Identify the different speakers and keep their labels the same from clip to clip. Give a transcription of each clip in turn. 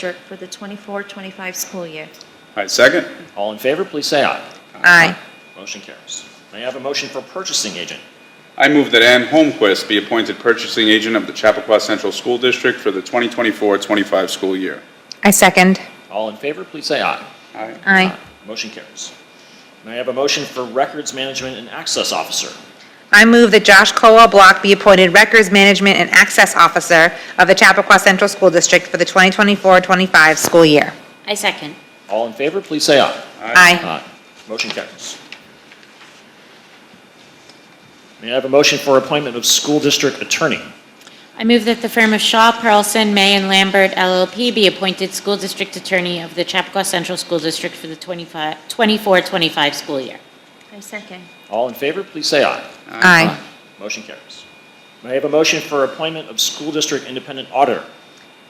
Speaker 1: district for the 24-25 school year.
Speaker 2: All right, second?
Speaker 3: All in favor, please say aye.
Speaker 1: Aye.
Speaker 3: Motion carries. May I have a motion for purchasing agent?
Speaker 2: I move that Ann Holmquist be appointed purchasing agent of the Chappaqua Central School District for the 2024-25 school year.
Speaker 4: I second.
Speaker 3: All in favor, please say aye.
Speaker 2: Aye.
Speaker 4: Aye.
Speaker 3: Motion carries. May I have a motion for records management and access officer?
Speaker 4: I move that Josh Colwell Block be appointed Records Management and Access Officer of the Chappaqua Central School District for the 2024-25 school year.
Speaker 5: I second.
Speaker 3: All in favor, please say aye.
Speaker 4: Aye.
Speaker 3: Motion carries. May I have a motion for appointment of school district attorney?
Speaker 5: I move that the firm of Shaw, Carlson, May, and Lambert LLP be appointed school district attorney of the Chappaqua Central School District for the 25 24-25 school year.
Speaker 1: I second.
Speaker 3: All in favor, please say aye.
Speaker 4: Aye.
Speaker 3: Motion carries. May I have a motion for appointment of school district independent auditor?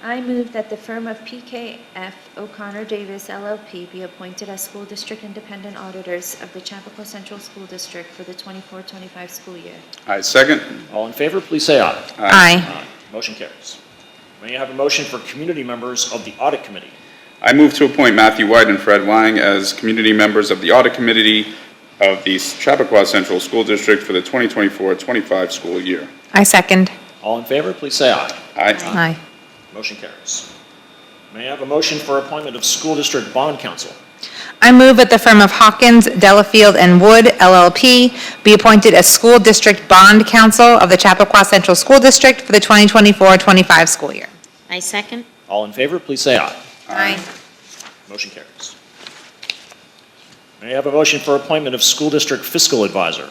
Speaker 1: I move that the firm of PKF O'Connor Davis LLP be appointed as school district independent auditors of the Chappaqua Central School District for the 24-25 school year.
Speaker 2: I second?
Speaker 3: All in favor, please say aye.
Speaker 4: Aye.
Speaker 3: Aye. Motion carries. May I have a motion for community members of the audit committee?
Speaker 2: I move to appoint Matthew White and Fred Lang as community members of the Audit Committee of the Chappaqua Central School District for the 2024-25 school year.
Speaker 4: I second.
Speaker 3: All in favor, please say aye.
Speaker 2: Aye.
Speaker 4: Aye.
Speaker 3: Motion carries. May I have a motion for appointment of school district bond counsel?
Speaker 4: I move that the firm of Hawkins, Delafield, and Wood LLP be appointed as School District Bond Counsel of the Chappaqua Central School District for the 2024-25 school year.
Speaker 5: I second.
Speaker 3: All in favor, please say aye.
Speaker 4: Aye.
Speaker 3: Motion carries. May I have a motion for appointment of school district fiscal advisor?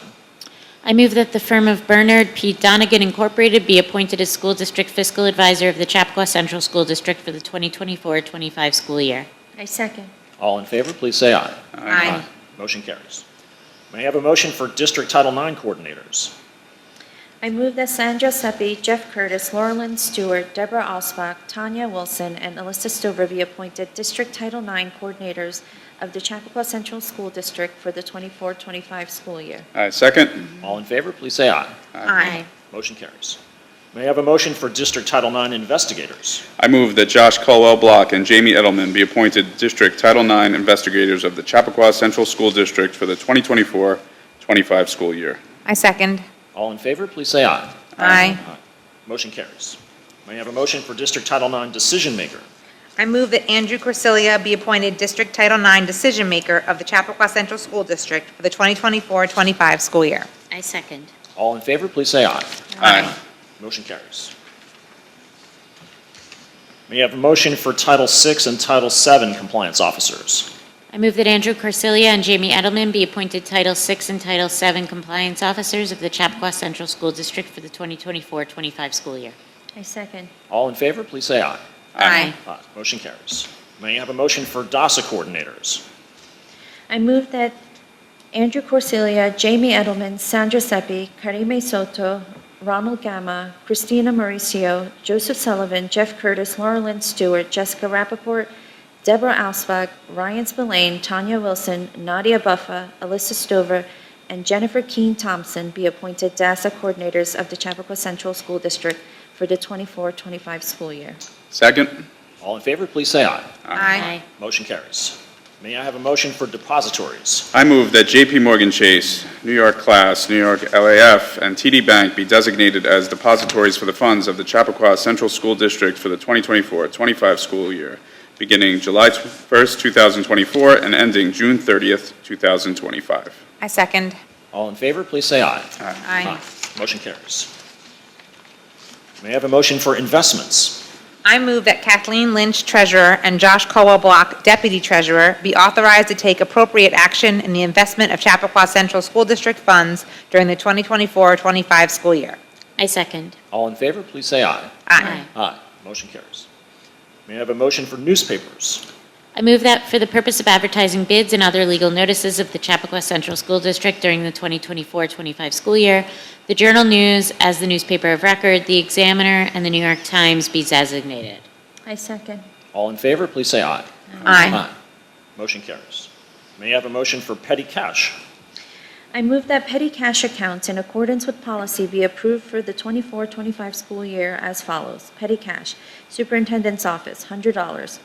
Speaker 5: I move that the firm of Bernard P. Donigan Incorporated be appointed as school district fiscal advisor of the Chappaqua Central School District for the 2024-25 school year.
Speaker 1: I second.
Speaker 3: All in favor, please say aye.
Speaker 4: Aye.
Speaker 3: Motion carries. May I have a motion for district Title IX coordinators?
Speaker 1: I move that Sandra Seppi, Jeff Curtis, Laurelyn Stewart, Deborah Osbach, Tanya Wilson, and Alyssa Stover be appointed District Title IX Coordinators of the Chappaqua Central School District for the 24-25 school year.
Speaker 2: I second?
Speaker 3: All in favor, please say aye.
Speaker 5: Aye.
Speaker 3: Motion carries. May I have a motion for district Title IX investigators?
Speaker 2: I move that Josh Colwell Block and Jamie Edelman be appointed District Title IX investigators of the Chappaqua Central School District for the 2024-25 school year.
Speaker 4: I second.
Speaker 3: All in favor, please say aye.
Speaker 4: Aye.
Speaker 3: Motion carries. May I have a motion for district Title IX decision maker?
Speaker 4: I move that Andrew Corsilia be appointed District Title IX Decision Maker of the Chappaqua Central School District for the 2024-25 school year.
Speaker 5: I second.
Speaker 3: All in favor, please say aye.
Speaker 2: Aye.
Speaker 3: Motion carries. May I have a motion for Title VI and Title VII compliance officers?
Speaker 5: I move that Andrew Corsilia and Jamie Edelman be appointed Title VI and Title VII compliance officers of the Chappaqua Central School District for the 2024-25 school year.
Speaker 1: I second.
Speaker 3: All in favor, please say aye.
Speaker 4: Aye.
Speaker 3: Aye. Motion carries. May I have a motion for DASA coordinators?
Speaker 1: I move that Andrew Corsilia, Jamie Edelman, Sandra Seppi, Karime Soto, Ronald Gamma, Christina Mauricio, Joseph Sullivan, Jeff Curtis, Laura Lynn Stewart, Jessica Rappaport, Deborah Ausbach, Ryan Spillane, Tanya Wilson, Nadia Buffa, Alyssa Stover, and Jennifer Keene Thompson be appointed DASA coordinators of the Chappaqua Central School District for the 24-25 school year.
Speaker 2: Second?
Speaker 3: All in favor, please say aye.
Speaker 5: Aye.
Speaker 3: Motion carries. May I have a motion for depositories?
Speaker 2: I move that JP Morgan Chase, New York Class, New York LAF, and TD Bank be designated as depositories for the funds of the Chappaqua Central School District for the 2024-25 school year, beginning July 1st, 2024, and ending June 30th, 2025.
Speaker 4: I second.
Speaker 3: All in favor, please say aye.
Speaker 4: Aye.
Speaker 3: Motion carries. May I have a motion for investments?
Speaker 4: I move that Kathleen Lynch, Treasurer, and Josh Colwell Block, Deputy Treasurer, be authorized to take appropriate action in the investment of Chappaqua Central School District funds during the 2024-25 school year.
Speaker 5: I second.
Speaker 3: All in favor, please say aye.
Speaker 4: Aye.
Speaker 3: Aye. Motion carries. May I have a motion for newspapers?
Speaker 5: I move that for the purpose of advertising bids and other legal notices of the Chappaqua Central School District during the 2024-25 school year, the Journal News as the newspaper of record, the Examiner, and the New York Times be designated.
Speaker 1: I second.
Speaker 3: All in favor, please say aye.
Speaker 4: Aye.
Speaker 3: Motion carries. May I have a motion for petty cash?
Speaker 1: I move that petty cash accounts in accordance with policy be approved for the 24-25 school year as follows. Petty cash, Superintendent's Office, $100.